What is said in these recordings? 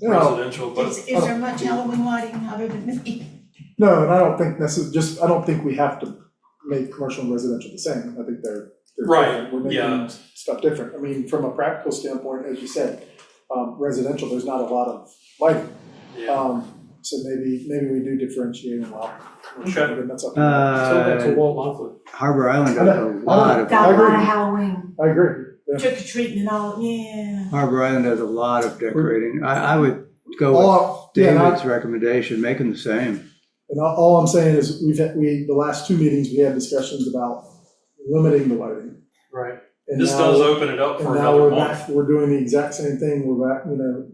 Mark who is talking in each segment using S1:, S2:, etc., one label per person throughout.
S1: You know,
S2: residential, but
S3: Is, is there much Halloween lighting other than me?
S1: No, and I don't think necess, just, I don't think we have to make commercial and residential the same, I think they're, they're
S2: Right,
S1: different, we're
S2: yeah.
S1: making stuff different, I mean, from a practical standpoint, as you said, um, residential, there's not a lot of lighting,
S2: yeah,
S1: um, so maybe, maybe we do differentiate and allow commercial,
S2: Okay.
S1: but that's up to you.
S2: so that's a
S4: Uh,
S2: Walt Longford.
S4: Harbor Island
S1: I
S4: does
S1: know,
S4: a lot of,
S1: I
S3: Got a lot of
S1: agree,
S3: Halloween,
S1: I agree, yeah.
S3: trick or treating and all, yeah.
S4: Harbor Island does a lot of decorating. I, I would go with
S1: All, Oh, yeah, and I-
S4: David's recommendation, make them the same.
S1: And all, all I'm saying is, we've had, we, the last two meetings, we had discussions about limiting the lighting.
S2: Right.
S1: And
S2: This
S1: now-
S2: does open it up
S1: And
S2: for
S1: now
S2: another
S1: we're
S2: month.
S1: back, we're doing the exact same thing, we're back, you know,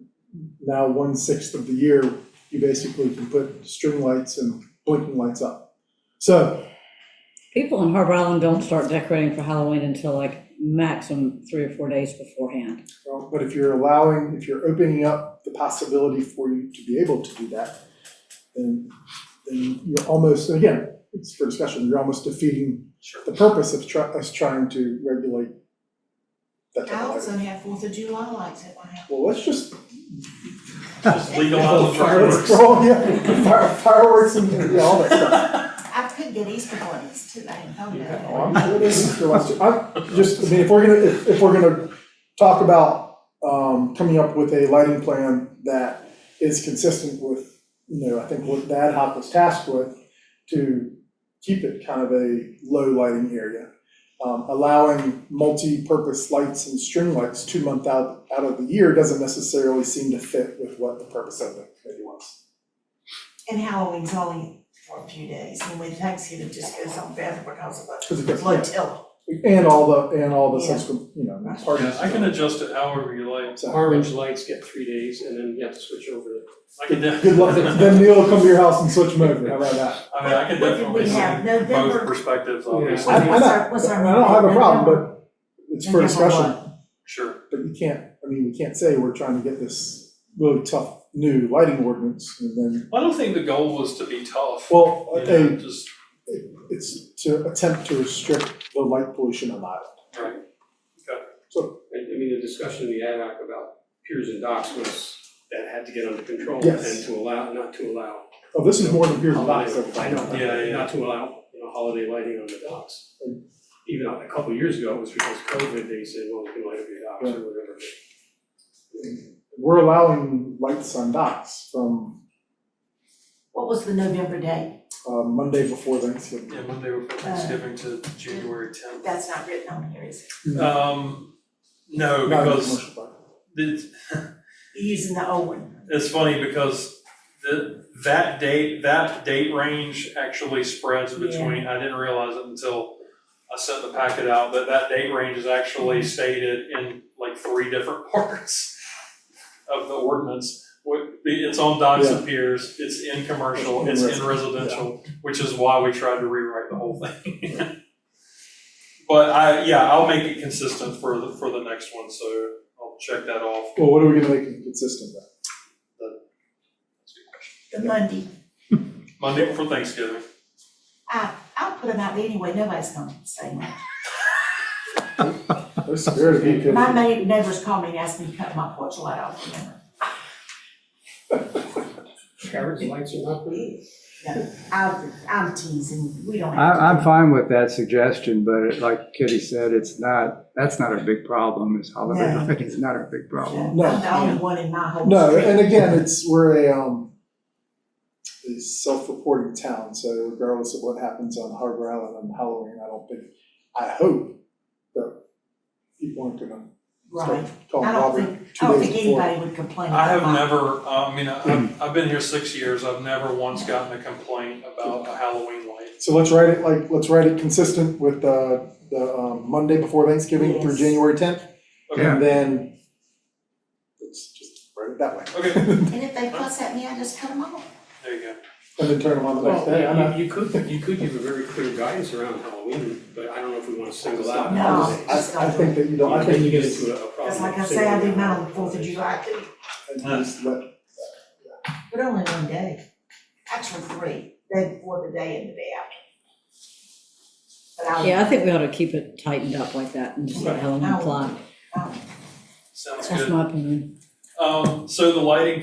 S1: now one sixth of the year, you basically can put string lights and blinking lights up. So,
S5: People in Harbor Island don't start decorating for Halloween until like maximum three or four days beforehand.
S1: well, but if you're allowing, if you're opening up the possibility for you to be able to do that, then, then you're almost, and again, it's for discussion, you're almost defeating
S2: Sure.
S1: the purpose of try, us trying to regulate that
S3: I
S1: type of
S3: also
S1: lighting.
S3: have Fourth of July lights at my house.
S1: Well, let's just.
S2: Just legalize the
S1: Let's
S2: fireworks.
S1: throw- yeah, fire- fireworks and, yeah, all that stuff.
S3: I could get Easter bunnies too, I didn't know
S1: Oh,
S3: that.
S1: I'm sure this is the last, I'm just, I mean, if we're gonna, if, if we're gonna talk about, um, coming up with a lighting plan that is consistent with, you know, I think what the ad hoc was tasked with, to keep it kind of a low lighting area. Um, allowing multi-purpose lights and string lights two month out, out of the year doesn't necessarily seem to fit with what the purpose of the committee was.
S3: And Halloween's only for a few days, and when Thanksgiving just goes on forever because of
S1: Because it
S3: the
S1: gets, yeah,
S3: flotilla.
S1: and all the, and all the
S3: Yeah.
S1: subsequent, you know,
S3: Right.
S1: parties.
S2: Yeah, I can adjust it however you like.
S1: So-
S6: Orange lights get three days and then you have to switch over to
S2: I can def-
S1: Good luck, then Neil will come to your house and switch them over, how about that?
S2: I mean, I can
S3: What did
S2: definitely
S3: we have?
S2: see both
S3: November?
S2: perspectives, obviously,
S1: I, I
S3: What's
S1: know,
S3: our- what's our
S1: I don't have a
S3: mandate?
S1: problem, but it's for
S3: November
S1: discussion,
S2: sure.
S1: but you can't, I mean, we can't say we're trying to get this really tough new lighting ordinance, and then,
S2: I don't think the goal was to be tough,
S1: well,
S2: you know,
S1: okay,
S2: just,
S1: it's to attempt to restrict the light pollution on the island.
S2: right.
S6: I, I mean, the discussion in the ad hoc about piers and docks was that had to get under control
S1: Yes.
S6: and to allow, not to allow.
S1: Oh, this is more than beer and box,
S6: holiday- I know,
S2: Yeah, yeah.
S6: not to allow, you know, holiday lighting on the docks. Even a couple of years ago, it was because of COVID, they said, well, you can light up your docks or whatever.
S1: We're allowing lights on docks from,
S3: What was the November date?
S1: uh, Monday before Thanksgiving.
S2: Yeah, Monday before Thanksgiving to January tenth.
S3: That's not written on here, is it?
S2: Um,
S1: Not
S2: no,
S1: in the
S2: because
S1: commercial park.
S2: it's,
S3: You're Using the old one.
S2: it's funny because the, that date, that date range actually spreads between, I didn't realize it until I sent the packet out, but that date range is actually stated in like three different parts of the ordinance. What- It's on docks and piers, it's in commercial, it's in residential, which is why we tried to rewrite the whole thing. But I, yeah, I'll make it consistent for the, for the next one, so I'll check that off.
S1: Well, what are we gonna make it consistent with?
S3: The Monday.
S2: Monday before Thanksgiving.
S3: I, I'll put them out anyway, nobody's gonna say much.
S1: There's spirit of you could-
S3: My ma- neighbors called me and asked me to cut my porch light off, remember?
S6: Carrots, lights are not permitted.
S3: I, I'm teasing, we don't have to.
S4: I, I'm fine with that suggestion, but it- like Kitty said, it's not, that's not our big problem, is holiday
S3: No.
S4: lighting is not our big problem.
S3: I'm
S1: No.
S3: the only one in my whole
S1: No,
S3: street.
S1: and again, it's, we're a, um, a self-reporting town, so regardless of what happens on Harbor Island on Halloween, I don't think, I hope that people aren't gonna
S3: Right,
S1: start calling
S3: I don't
S1: Robert
S3: think, I
S1: two
S3: don't
S1: days
S3: think
S1: before.
S3: anybody would complain
S2: I have
S3: about my,
S2: never, I mean, I've, I've been here six years, I've never once gotten a complaint about a Halloween light.
S1: So let's write it like, let's write it consistent with, uh, the, um, Monday before Thanksgiving through
S3: Yes.
S1: January tenth.
S2: Okay.
S4: Yeah.
S1: And then, let's just write it that way.
S2: Okay,
S3: and if they fuss at me, I just cut them off.
S2: there you go.
S1: And then turn them on the next day, I know.
S6: Well, you, you could, you could give a very clear guidance around Halloween, but I don't know if we wanna single out
S3: No.
S6: holidays.
S1: I, I think that you don't, I
S6: I think
S1: think
S6: you get into a a problem.
S3: Cause like I
S6: of
S3: say, I do
S6: singling
S3: mine
S6: out
S3: on the Fourth of
S6: holidays.
S3: July too,
S1: just let
S3: but only one day, actually three, day before the day and the day after. But I'll.
S5: Yeah, I think we ought to keep it tightened up like that and just let Halloween fly.
S3: I'll-
S2: Sounds
S5: That's
S2: good.
S5: my opinion.
S2: Um, so the lighting